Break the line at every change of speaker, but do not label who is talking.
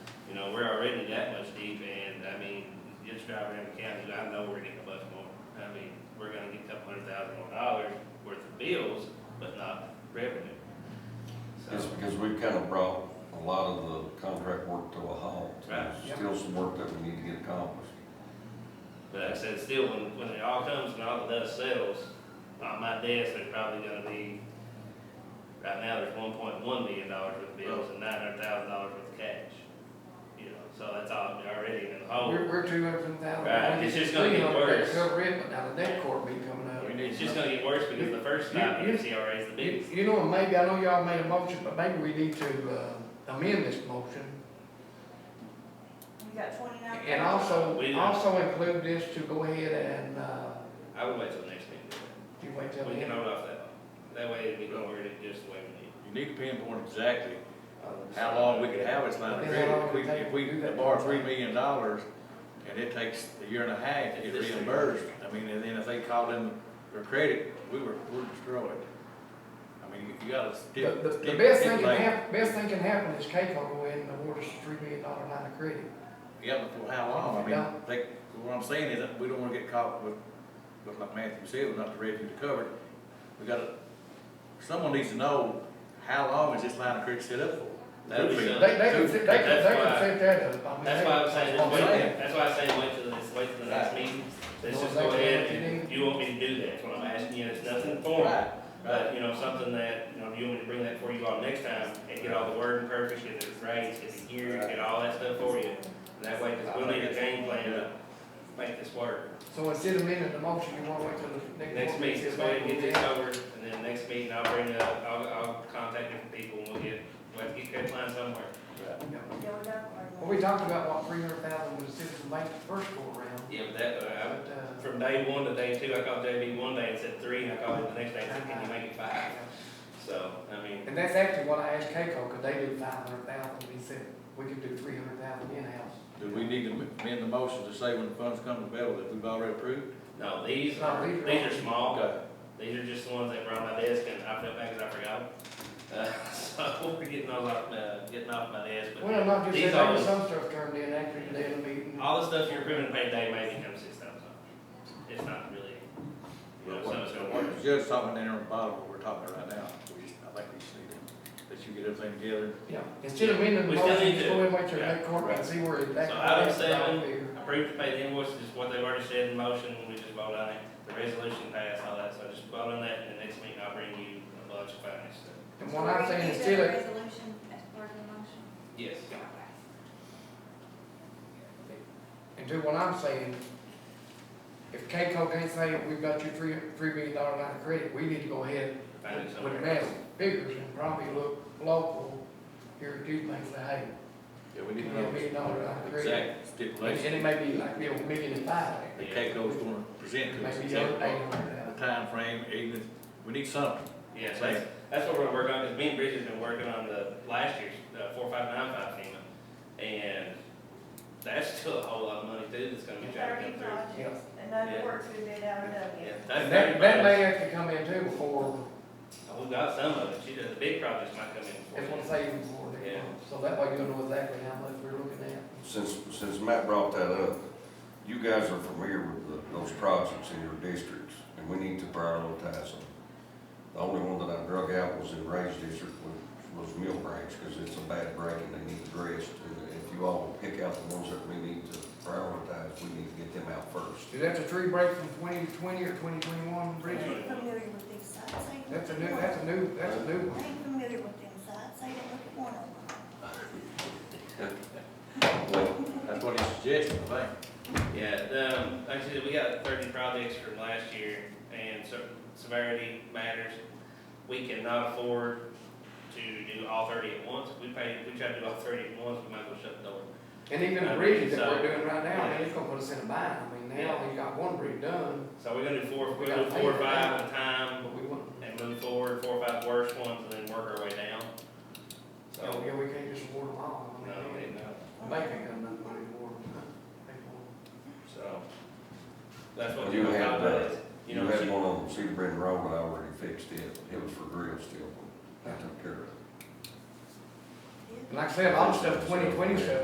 know, we're already that much deep, and, I mean, just driving around the county, I know we're getting a bunch more. I mean, we're gonna get a couple hundred thousand more dollars worth of bills, but not revenue.
It's
So,
because we've kind of brought a lot of the contract work to a halt.
Right.
There's Still some work that we need to get accomplished.
but like I said, still, when, when it all comes and all the dust settles, on my desk, there's probably gonna be, right now, there's one point one million dollars worth of bills and nine hundred thousand dollars worth of cash. You know, so that's all already in the hole.
We're, we're two hundred thousand.
Oh. Right, it's just gonna get worse.
Cover it, but now the debt court be coming up.
It's just gonna get worse because the first time,
You-
the
you-
CRA is the
You
biggest.
you know, maybe, I know y'all made a motion, but maybe we need to uh, amend this motion.
You got twenty-nine.
And also,
We-
also include this to go ahead and, uh,
I would wait till next meeting.
do you wait till the
We can
end?
hold off that one. That way we don't worry it just the way we need.
You need to pinpoint exactly
of the-
how long we could have this line of
How long
credit. If we,
it take
if
to do
we
that?
borrow three million dollars and it takes a year and a half to get
This thing.
reimbursed, I mean, and then if they called in their credit, we were, we're destroyed. I mean, you- you gotta
The,
stick.
the, the
stick-
best thing
stipulate-
can hap, best thing can happen is Keiko go ahead and award us a three million dollar line of credit.
Yeah, but for how long? I mean,
Yeah.
they, what I'm saying is that we don't wanna get caught with, with like Matthew said, with not the revenue to cover. it. We gotta, someone needs to know how long is this line of credit set up for?
That'd be
Two
something.
They, they can,
Two-
they can, they can
why-
set that up. I mean,
That's
they-
why I was saying, just
That's what I'm
wait,
saying.
that's why I say wait till this, wait till the next meeting. Let's
Know
just go
exactly
ahead
what you
and,
need.
you want me to do that, that's what I'm asking you, it's nothing formal.
Right,
But,
right.
you know, something that, you know, you want me to bring that for you all next time and get all the wording perfect, get it right, get it here, get all that stuff for you. That way, because we'll need a game plan to make this work.
So instead of amending the motion, you wanna wait till the next.
Next
one?
meeting, just go ahead and get this over, and then next meeting, I'll bring up, I'll, I'll contact different people, and we'll get, we'll have to get that line somewhere.
Yeah.
Yeah, we got one.
Well, we talked about what three hundred thousand was citizen bank the first go around.
Yeah, but that, uh,
But,
I-
uh,
from day one to day two, I called JB one day and said three, and I called him the next day and said, can you make it five? So, I mean,
and that's actually what I asked Keiko, could they do five hundred thousand, he said, we could do three hundred thousand in-house.
Do we need to amend the motion to say when the funds come available that we've already approved?
no, these are,
No, these are-
these are small,
Okay.
these are just the ones that were on my desk, and I felt bad because I forgot them. Uh, so, we're getting all off, uh, getting off my desk, but
Well, not just
these
that,
are,
there was some stuff turned in after the day of the meeting.
all the stuff you're approving paid day may become six thousand. It's not really, you know, so it's gonna work.
The judge talking in there bottom what we're talking right now. We just, I think we just need to, that you get everything together.
Yeah, instead of amending the
We still
motion,
need
just
to-
go ahead and wait till
yeah,
that court and
right.
see where it
So item
actually is
seven,
out there.
Approved to pay the invoices, is what they've already said in motion, we just vote on it, the resolution passed, all that, so just vote on that, and the next meeting I'll bring you a bunch of finance stuff.
And what I'm saying,
Is
instead
there
of,
a Resolution as part of the motion?
Yes.
And do what I'm saying, if Keiko can't say, we've got your three, three million dollar line of credit, we need to go ahead
Find it
with
somewhere.
massive figures and probably look local here at Duke and say, hey,
Yeah, we
we
need to
got a million
know
dollar line of credit.
exact
And
stipulation
and it may be like, you know, a million and five,
that Keiko's gonna present to us.
maybe
exactly
eight
what
hundred thousand.
The timeframe, even, we need something.
Yeah, so that's, that's what we're gonna work on, because me and Bridget's been working on the last year's, uh, four, five, nine, five FEMA, and that's still a whole lot of money too, that's gonna be trying to
Thirty
come through.
projects, and
Yeah.
other works we've been out of them.
Yeah, that's
And that, that may
everybody.
have to come in too before,
We've Oh, got some of it, she does, the big projects might come in.
that's what I'm
before.
saying, before they
Yeah.
come. So that way you'll know exactly how much we're looking at.
Since, since Matt brought that up, you guys are familiar with the, those projects in your districts, and we need to prioritize them. The only one that I drug out was in Ray's district, was, was Mill Branch, because it's a bad break and they need addressed. And if you all pick out the ones that we need to prioritize, we need to get them out first.
Is that the tree break from twenty twenty or twenty twenty-one,
I
Bridget?
ain't familiar with these sites, I ain't.
That's a
looked
new,
at
that's
one.
a new, that's a new one.
I ain't familiar with these sites, I didn't look at one of them.
Well,
That's what he's suggesting, I think.
Yeah, um, like I said, we got thirty projects from last year, and so severity matters. We cannot afford to do all thirty at once. If we pay, if we try to do all thirty at once, we might as well shut the door.
And even the
I
bridges that
mean,
we're
so-
doing right now, I mean, it's gonna put us in a bind, I mean, now
Yeah.
we got one bridge done,
So we're gonna do four,
We
we're gonna do
gotta
four or
pay for
five
that.
at a time,
but we wouldn't,
and move forward, four or five worst ones, and then work our way down.
you know,
So,
Oh, yeah, we can't just award them all. I
no,
mean,
we didn't know.
The bank ain't got enough money to award them. They won't.
so. That's what
You
we're
had,
talking about,
uh,
is, you
You
know,
had
she-
one on Cedar Bend Road, and I already fixed it. It was for grill steel. I took care of it.
And like I said, all the stuff, twenty twenty stuff,